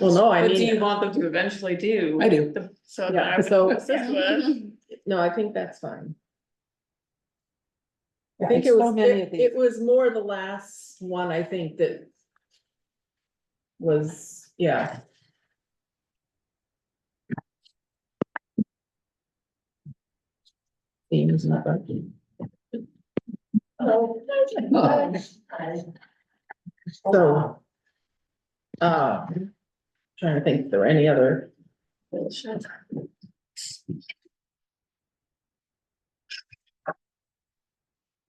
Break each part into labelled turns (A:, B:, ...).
A: Well, no, I
B: What do you
A: mean,
B: want them to eventually do?
C: I do.
B: The- So that I
A: yeah,
B: would
A: so,
B: assist with.
A: no, I think that's fine. I
C: Yeah,
A: think
C: it's
A: it
C: so
A: was,
C: many of
A: it,
C: these.
A: it was more the last one, I think, that was, yeah. Theme is not working. So. Uh, trying to think if there were any other.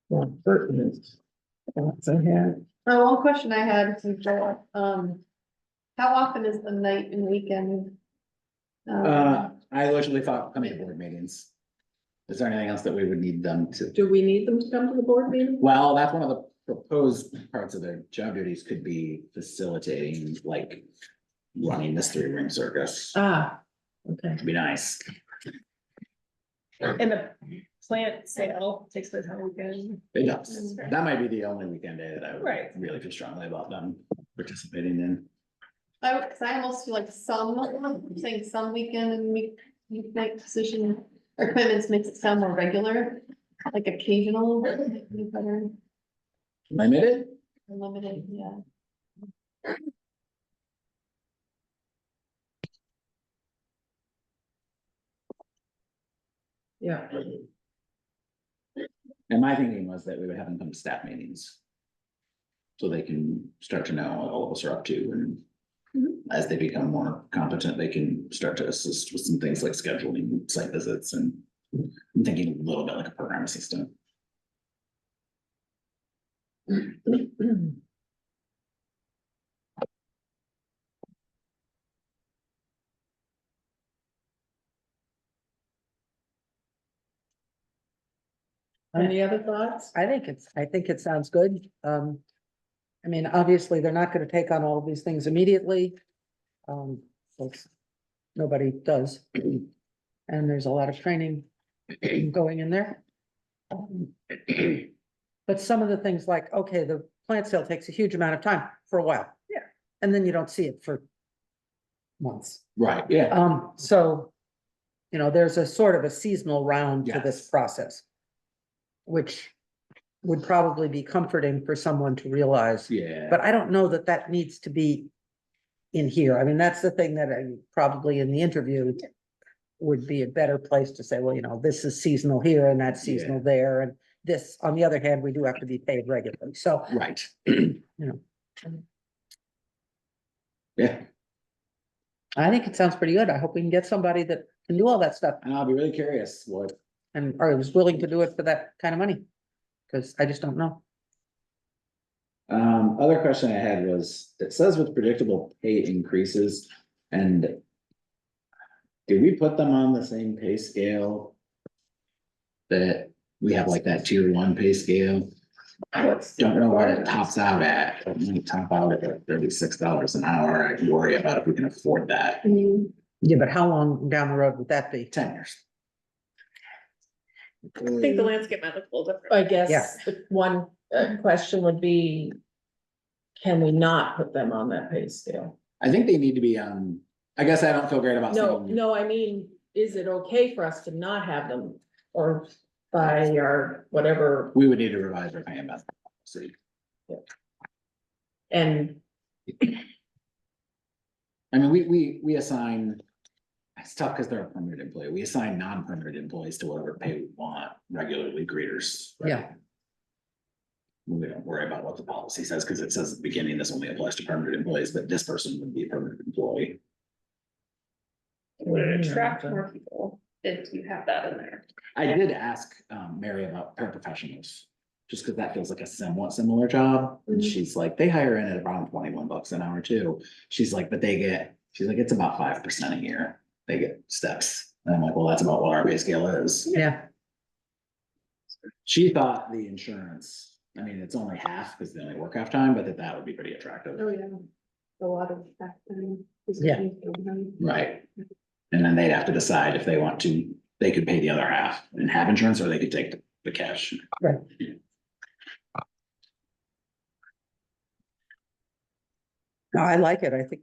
A: Yeah, pertinent thoughts I had.
D: Uh, one question I had, since I, um, how often is the night and weekend? um,
C: Uh, I literally thought, how many board meetings? Is there anything else that we would need them to?
A: Do we need them to come to the board meeting?
C: Well, that's one of the proposed parts of their job duties could be facilitating, like. Running this three ring circus,
A: Ah, okay.
C: it'd be nice.
D: And the plant sale takes place on weekend.
C: It does. That might be the only weekend day that I
D: Right.
C: would really feel strongly about them participating in.
D: I, would- cause I almost feel like some, I'm saying some weekend and week, weeknight position or commitments makes it sound more regular, like occasional, would be better,
C: Limited?
D: limited, yeah.
A: Yeah,
C: And my thinking was that we would have them come to staff meetings. So they can start to know what all of us are up to and. As they become more competent, they can start to assist with some things like scheduling site visits and. I'm thinking a little bit like a program assistant.
A: any other thoughts?
E: I think it's, I think it sounds good. Um, I mean, obviously, they're not gonna take on all of these things immediately. Um, folks, nobody does. And there's a lot of training going in there. Um, But some of the things like, okay, the plant sale takes a huge amount of time for a while.
A: Yeah.
E: And then you don't see it for months.
C: Right, yeah.
E: Um, so, you know, there's a sort of a seasonal round to this
C: Yes.
E: process. Which would probably be comforting for someone to realize,
C: Yeah.
E: but I don't know that that needs to be in here. I mean, that's the thing that I probably in the interview would be a better place to say, well, you know, this is seasonal here and that's
C: Yeah.
E: seasonal there and this, on the other hand, we do have to be paid regularly. So,
C: Right.
E: know.
C: Yeah,
E: I think it sounds pretty good. I hope we can get somebody that can do all that stuff.
C: and I'll be really curious what,
E: and or was willing to do it for that kind of money. Cause I just don't know.
C: um, other question I had was, it says with predictable pay increases and. Did we put them on the same pay scale? That we have like that tier one pay scale? Don't know where it tops out at, but when you top out at like thirty-six dollars an hour, I can worry about if we can afford that.
E: Yeah, but how long down the road would that be?
C: Ten years.
B: I think the landscape might look a little different.
A: I guess the one uh, question would be, can we not put them on that pay scale?
C: I think they need to be on, I guess I don't feel great about
A: No,
C: saying,
A: no, I mean, is it okay for us to not have them or by or whatever
C: we would need to revise our payment. method. So
A: and
C: I mean, we, we, we assign, it's tough because they're a permanent employee. We assign non-permanent employees to whatever pay we want, regularly greeters. right?
E: Yeah.
C: We don't worry about what the policy says because it says at the beginning, this only applies to permanent employees, but this person would be a permanent employee.
B: Would it attract more people if you have that in there?
C: I did ask um Mary about paraprofessionals, just because that feels like a somewhat similar job.
D: Mm-hmm.
C: And
A: Mhm.
C: she's like, they hire in at around twenty-one bucks an hour too. She's like, but they get, she's like, it's about five percent a year. They get steps. And I'm like, well, that's about what our pay scale is.
E: Yeah,
C: She thought the insurance, I mean, it's only half because they only work half time, but that that would be pretty attractive.
D: Oh, yeah, a lot of um, factoring.
E: Yeah.
C: Right. And then they'd have to decide if they want to, they could pay the other half and have insurance or they could take the- the cash.
E: Right. no, I like it. I think